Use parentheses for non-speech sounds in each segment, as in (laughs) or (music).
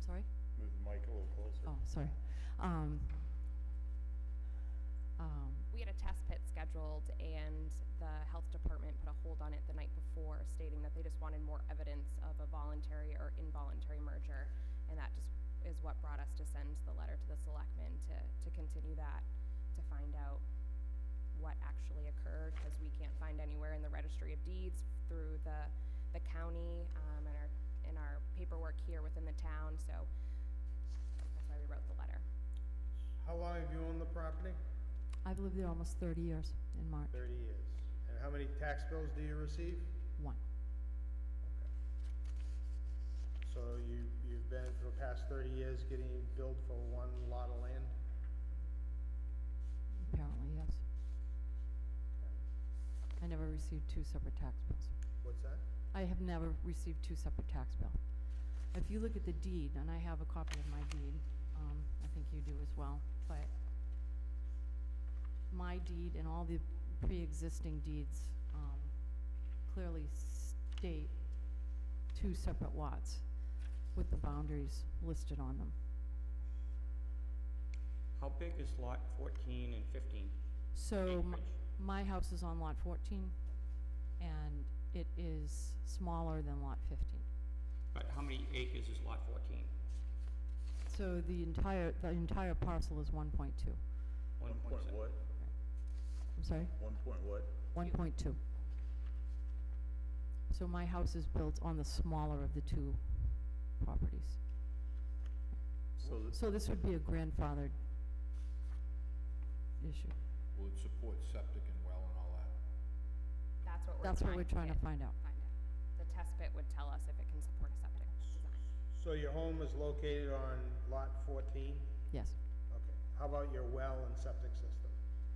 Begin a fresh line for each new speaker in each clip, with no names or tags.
sorry?
Move the mic a little closer.
Oh, sorry. Um, um,
We had a test pit scheduled, and the health department put a hold on it the night before, stating that they just wanted more evidence of a voluntary or involuntary merger, and that just is what brought us to send the letter to the selectmen to, to continue that, to find out what actually occurred, because we can't find anywhere in the registry of deeds through the, the county, um, and our, in our paperwork here within the town, so that's why we wrote the letter.
How long have you owned the property?
I've lived there almost 30 years in March.
Thirty years. And how many tax bills do you receive?
One.
So you, you've been for the past thirty years getting billed for one lot of land?
Apparently, yes. I never received two separate tax bills.
What's that?
I have never received two separate tax bill. If you look at the deed, and I have a copy of my deed, um, I think you do as well, but my deed and all the pre-existing deeds, um, clearly state two separate lots with the boundaries listed on them.
How big is lot fourteen and fifteen?
So, m-
Acreage.
my house is on lot fourteen, and it is smaller than lot fifteen.
But how many acres is lot fourteen?
So the entire, the entire parcel is one point two,
One point seven.
what?
I'm sorry,
One point what?
one point two. So my house is built on the smaller of the two properties.
So that,
So this would be a grandfathered issue.
Will it support septic and well and all that?
That's what we're
That's what we're trying
trying
to find out.
find out. The test pit would tell us if it can support a septic design.
So your home is located on lot fourteen?
Yes.
Okay. How about your well and septic system?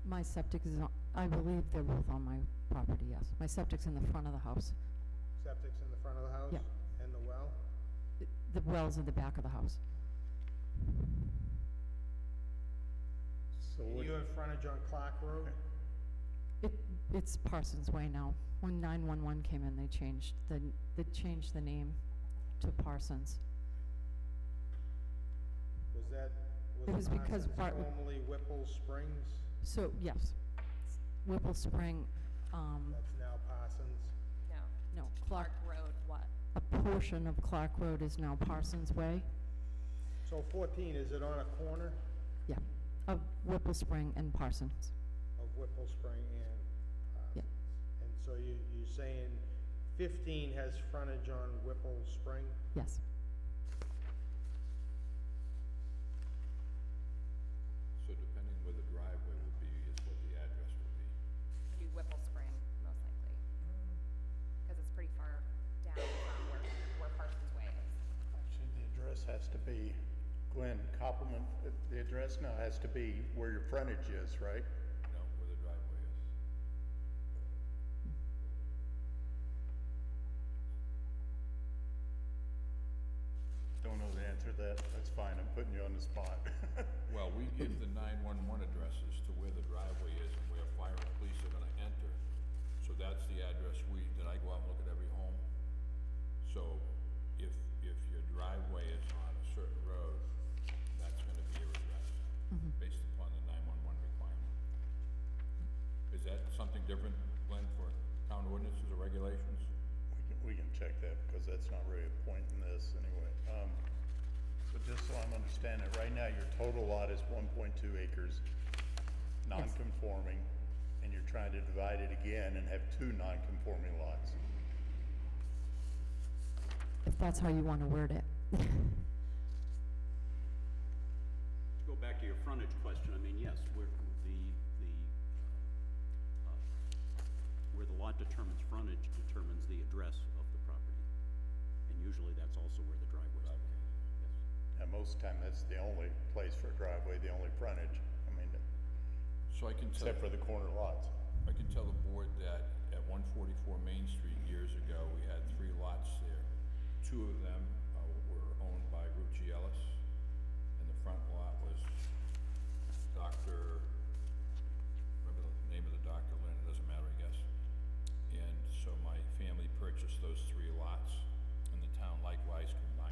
My septic is, on- I believe they're both on my property, yes. My septic's in the front of the house.
Septic's in the front of the house?
Yeah.
And the well?
The well's in the back of the house.
so
And
what,
you have frontage on Clark Road?
It, it's Parsons Way now. When 911 came in, they changed the, n- they changed the name to Parsons.
Was that,
It
was
was
the
because
Parsons
Bart-
formerly Whipple Springs?
So, yes, Whipple Spring, um,
That's now Parsons?
No,
no, Clark,
Clark Road, what?
a portion of Clark Road is now Parsons Way.
So fourteen, is it on a corner
Yeah, of Whipple Spring and Parsons.
of Whipple Spring and
Yeah.
Parsons? And so you, you're saying fifteen has frontage on Whipple Spring?
Yes,
So depending where the driveway would be is what the address would be.
It'd be Whipple Spring, most likely. Because it's pretty far down from where, where Parsons Way is.
actually, the address has to be, Glenn, compliment, the- the address now has to be where your frontage is, right?
No, where the driveway is.
Don't know the answer to that, that's fine, I'm putting you on the spot. (laughs)
Well, we give the nine-one-one addresses to where the driveway is and where fire and police are gonna enter. So that's the address we, that I go out and look at every home. So if, if your driveway is on a certain road, that's gonna be your address, based upon the nine-one-one requirement. Is that something different, Glenn, for town ordinances or regulations?
We can, we can check that, because that's not really a point in this, anyway. Um, but just so I'm understanding it, right now, your total lot is one point two acres, non-conforming, and you're trying to divide it again and have two non-conforming lots.
if that's how you want to word it. (laughs)
Go back to your frontage question, I mean, yes, where the, the, uh, where the lot determines frontage determines the address of the property. And usually that's also where the driveway is. Yes.
And most of the time, that's the only place for a driveway, the only frontage, I mean,
So I can tell.
except for the corner lots.
I can tell the board that at one forty-four Main Street years ago, we had three lots there. Two of them uh, were owned by Rucci Ellis, and the front lot was Dr., remember the name of the doctor, Lynn, it doesn't matter, I guess. And so my family purchased those three lots, and the town likewise combined